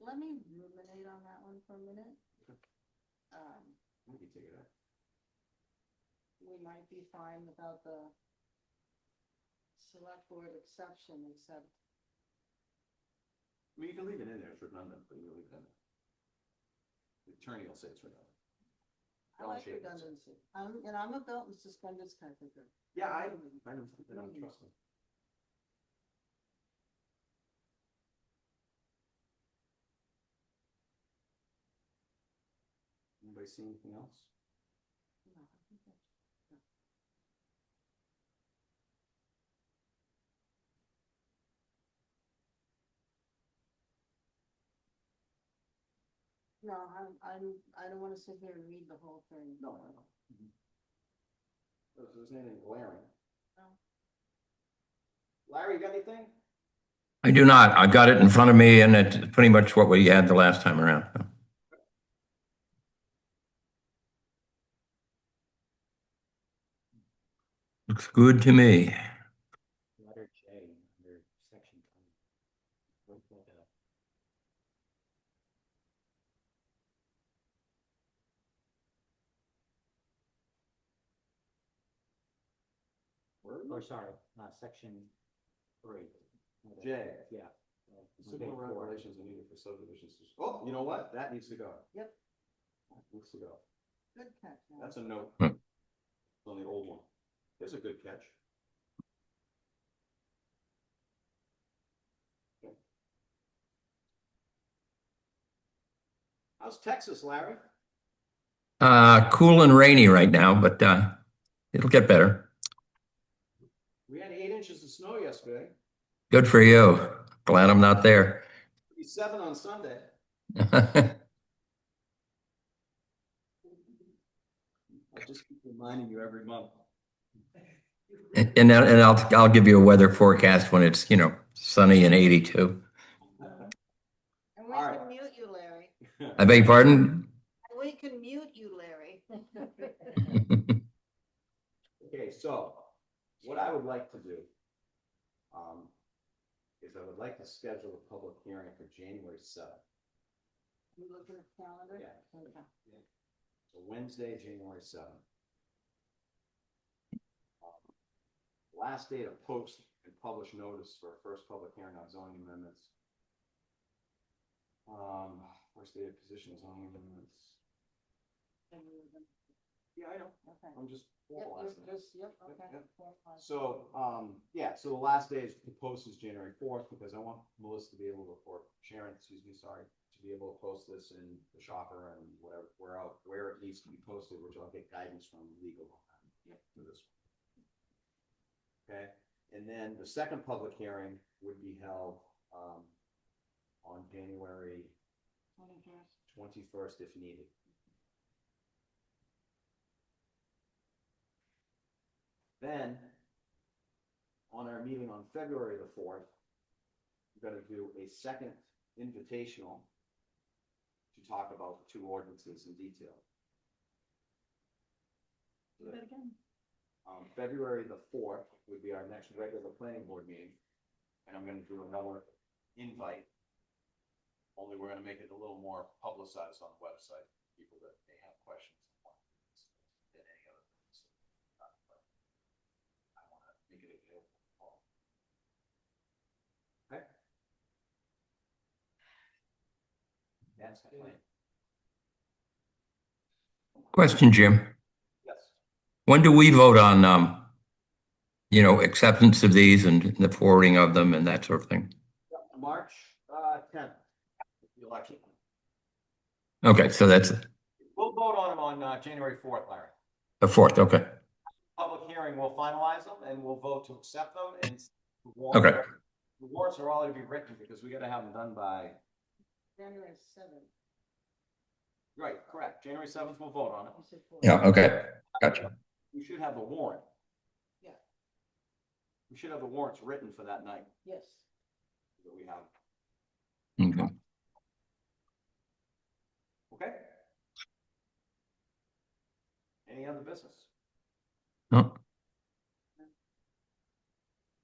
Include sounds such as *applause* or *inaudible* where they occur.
Let me ruminate on that one for a minute. Um, We can take it out. we might be fine about the select board exception, except I mean, you can leave it in there, it's redundant, but you can leave it in there. The attorney will say it's redundant. I Don't like shave it. redundancy. I'm, and I'm a belt and suspenders kind of thinker. Yeah, I, I don't, I don't trust them. Anybody see anything else? No, I think that's- no. No, I'm, I'm, I don't wanna sit here and read the whole thing. No, I don't. If there's anything glaring. No. Larry, you got anything? I do not. I've got it in front of me and it's pretty much what we had the last time around. Looks good to me. Letter J under section twenty. Look that up. Or sorry, uh, section three. Okay. J. Yeah. Signal regulations are needed for subdivisions. Oh, you know what? That needs to go. Yep. That Needs to go. Good catch. Alan. That's a note. Hmm. On the old one. There's a good catch. Okay. How's Texas, Larry? Uh, cool and rainy right now, but uh, it'll get better. We had eight inches of snow yesterday, Good for you. Glad I'm not there. *laughs* It'll be seven on Sunday. I just keep reminding you every month. *laughs* And I'll- and I'll I'll give you a weather forecast when it's, you know, sunny and 82. And we Alright. can mute you, Larry. I beg your pardon? *laughs* And We can mute you, Larry. Okay, so what I would like to do um, is I would like to schedule a public hearing for January seventh, You looking at the calendar? Yeah. Okay. so Wednesday, January seventh. Last day to post and publish notice for our first public hearing on zoning amendments. Um, first day of position zoning amendments. Then we would- Yeah, I know, Okay. I'm just Yep, formalizing you're it. just, yep, Yep, okay. yep. Formalize. So, um, yeah, so the last day is, the post is January fourth, because I want Melissa to be able to, or Sharon, excuse me, sorry, to be able to post this in the shopper and whatever, where out, where it needs to be posted, which I'll get guidance from legal on that, for this. one. Okay, and then the second public hearing would be held, um, on January Twenty-first. twenty-first if needed. Then, on our meeting on February the fourth, we're gonna do a second invitational to talk about the two ordinances in detail. Do that again. Um, February the fourth would be our next regular planning board meeting, and I'm gonna do another invite. Only we're gonna make it a little more publicized on the website, for people that may have questions. Than any other. things. Uh, but I wanna make it available. for all. Okay? That's my plan. Question, Jim. Yes. When do we vote on, um, you know, acceptance of these and the forwarding of them and that sort of thing? March, uh, tenth, the election. Okay, so that's We'll vote on them on, uh, January fourth, Larry. the fourth, okay. public hearing, we'll finalize them and we'll vote to accept them and. the warrants- Okay. The warrants are already be written because we gotta have them done by, January seventh. right, correct, January seventh, we'll vote on it. You said four. Yeah, okay, gotcha. We should have the warrant. Yeah. We should have the warrants written for that night Yes. that we have, Okay. okay? Any other business? No,